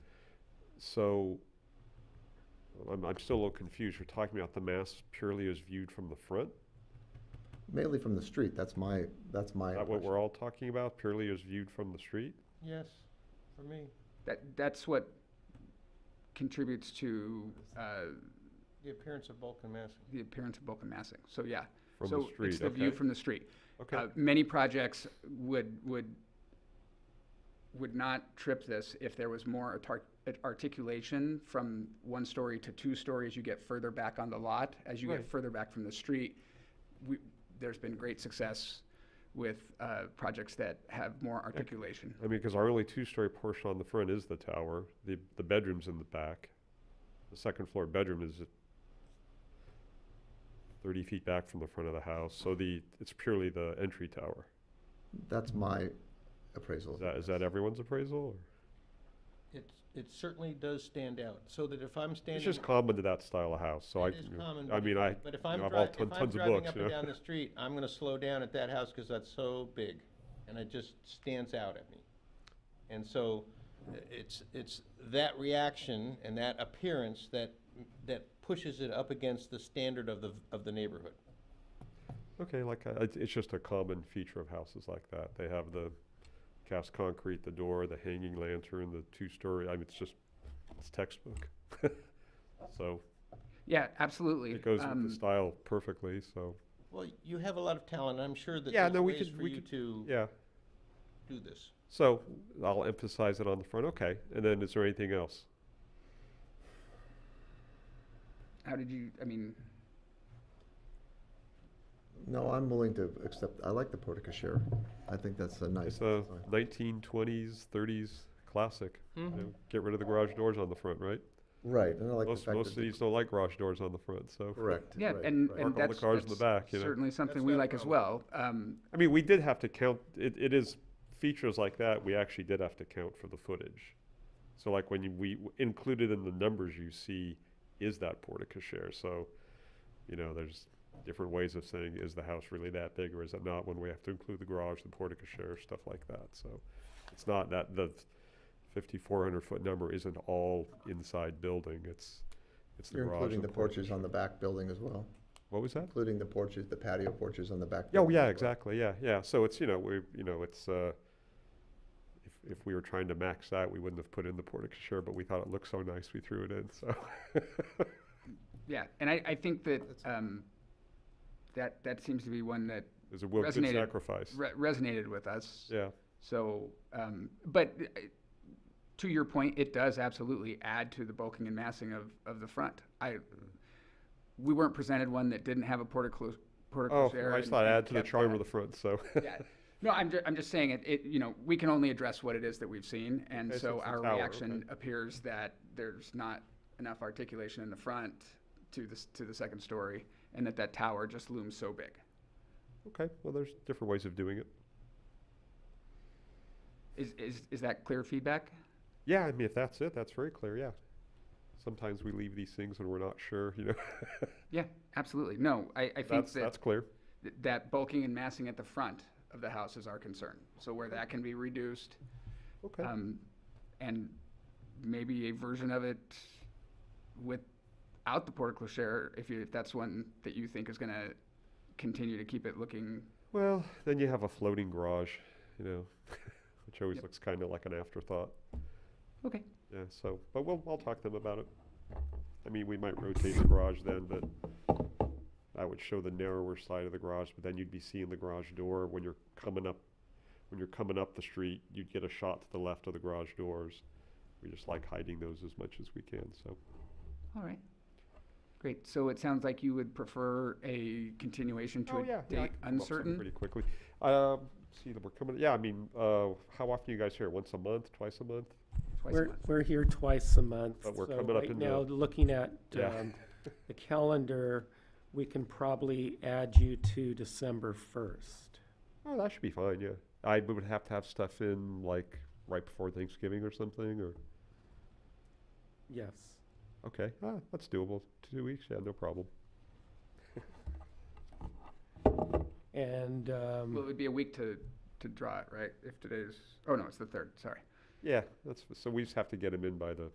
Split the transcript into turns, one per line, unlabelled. so I'm, I'm still a little confused. You're talking about the mass purely as viewed from the front?
Mainly from the street, that's my, that's my
Is that what
impression.
we're all talking about? Purely as viewed from the street?
Yes, for me,
That, that's what contributes to uh,
the appearance of bulk and mass.
the appearance of bulk and massing. So, yeah.
From the
so
street,
it's the view
okay.
from the street.
Okay.
Uh, many projects would would would not trip this if there was more atar- at- articulation from one story to two stories. You get further back on the lot as you
Right.
get further back from the street. We, there's been great success with uh, projects that have more articulation.
I mean, because our only two-story portion on the front is the tower, the, the bedroom's in the back. The second floor bedroom is at thirty feet back from the front of the house, so the, it's purely the entry tower.
That's my appraisal.
Is that, is that everyone's appraisal? or-
It, it certainly does stand out, so that if I'm standing.
It's just common to that style of house, so I,
It is common,
I
but
mean,
if-
I,
But if
you
I'm
know, I've
dri-
all
if
ton-
I'm
tons of
driving
books,
up
you
and
know?
down the street, I'm gonna slow down at that house because that's so big, and it just stands out at me. And so, i- it's, it's that reaction and that appearance that, that pushes it up against the standard of the, of the neighborhood.
Okay, like, uh, it's, it's just a common feature of houses like that. They have the cast concrete, the door, the hanging lantern, the two-story, I mean, it's just, it's textbook. So,
Yeah, absolutely.
it goes with
Um,
the style perfectly, so,
Well, you have a lot of talent, I'm sure that
Yeah,
there's
no, we
ways
could-
for
we
you
could-
to
yeah.
do this.
So, I'll emphasize it on the front, okay. And then is there anything else?
How did you? I mean,
No, I'm willing to accept, I like the portico share. I think that's a nice.
It's a
design.
nineteen twenties, thirties classic. you know, Get rid of the garage doors on the front, right?
Right, and I like the
Most,
fact that.
most
the-
cities don't like garage doors on the front, so.
Correct.
yeah,
right,
and,
right.
and
Park all the
that's,
cars in the
that's
back, you know?
certainly
That's
something we
not a
like as well. Um,
I mean, we did have to count, it, it is, features like that, we actually did have to count for the footage. So like when you, we w- included in the numbers you see, is that portico share? So, you know, there's different ways of saying, is the house really that big or is it not? When we have to include the garage, the portico share, stuff like that. So it's not that the fifty-four hundred foot number isn't all inside building. It's, it's the
You're
garage.
including
and
the porches on the back building as well,
What was that?
including the porches, the patio porches on the back.
Yeah, oh,
building
yeah,
as well.
exactly, yeah, yeah, so it's, you know, we, you know, it's, uh, if, if we were trying to max that, we wouldn't have put in the portico share, but we thought it looked so nice, we threw it in, so.
Yeah, and I, I think that, um, that, that seems to be one that
It's a wo- good
Resonated.
sacrifice,
re- resonated with us.
yeah,
So, um, but uh, to your point, it does absolutely add to the bulking and massing of, of the front. I,
Mm-hmm.
we weren't presented one that didn't have a portico, portico
oh,
share.
I
and-
just thought
and
add to the
kept
charm
that.
of the front, so.
Yeah. No, I'm, ju- I'm just saying it, it, you know, we can only address what it is that we've seen. And
Okay, so
so
it's the
our
tower,
reaction
okay.
appears that there's not enough articulation in the front to the, s- to the second story and that that tower just looms so big.
Okay, well, there's different ways of doing it,
Is, is, is that clear feedback?
yeah, I mean, if that's it, that's very clear, yeah. Sometimes we leave these things and we're not sure, you know,
Yeah, absolutely. No, I, I think
that's,
that,
that's clear,
that bulking and massing at the front of the house is our concern. So where that can be reduced,
okay.
um, and maybe a version of it without the portico share, if you, if that's one that you think is gonna continue to keep it looking,
Well, then you have a floating garage, you know, which always
Yep.
looks kind of like an afterthought.
okay.
Yeah, so, but we'll, I'll talk to them about it. I mean, we might rotate the garage then, but that would show the narrower side of the garage, but then you'd be seeing the garage door when you're coming up, when you're coming up the street, you'd get a shot to the left of the garage doors. We just like hiding those as much as we can, so.
All right. Great, so it sounds like you would prefer a continuation to
Oh, yeah,
a
yeah, I
date
can come up with something
uncertain?
Pretty quickly. Um, see, that we're coming, yeah, I mean, uh, how often you guys here? Once a month, twice a month?
twice a
We're,
month.
we're here twice a month.
But we're
so
coming up
right
into-
Now, looking at,
Yeah.
um, the calendar, we can probably add you to December first.
Oh, that should be fine, yeah. I would have to have stuff in like right before Thanksgiving or something, or,
Yes.
okay, ah, that's doable. Two weeks, yeah, no problem.
And,
Well, it
um,
would be a week to, to draw it, right? If today's, oh no, it's the third, sorry.
Yeah, that's, so we just have to get them in by the